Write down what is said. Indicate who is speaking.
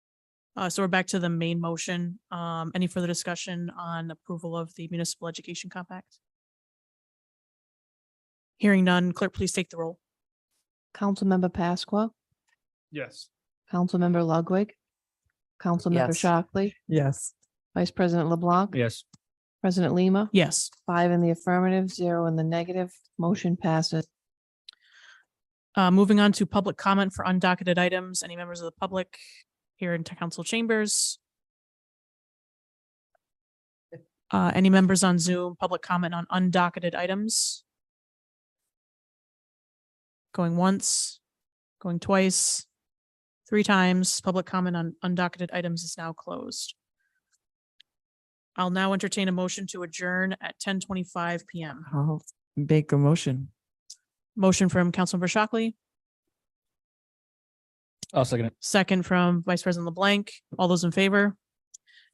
Speaker 1: Uh, so we're back to the main motion. Um, any further discussion on approval of the municipal education compact? Hearing none, clerk, please take the roll.
Speaker 2: Councilmember Pasqua,
Speaker 3: Yes.
Speaker 2: Councilmember Ludwig, Councilmember
Speaker 4: Yes.
Speaker 2: Shockley,
Speaker 4: Yes.
Speaker 2: Vice President LeBlanc,
Speaker 3: Yes.
Speaker 2: President Lima,
Speaker 1: Yes.
Speaker 2: five in the affirmative, zero in the negative, motion passes.
Speaker 1: Uh, moving on to public comment for undocketed items, any members of the public here in t- council chambers? Uh, any members on Zoom, public comment on undocketed items? Going once, going twice, three times, public comment on undocketed items is now closed. I'll now entertain a motion to adjourn at ten twenty-five PM.
Speaker 4: I'll make a motion.
Speaker 1: Motion from Councilmember Shockley.
Speaker 3: I'll second it.
Speaker 1: Second from Vice President LeBlanc. All those in favor?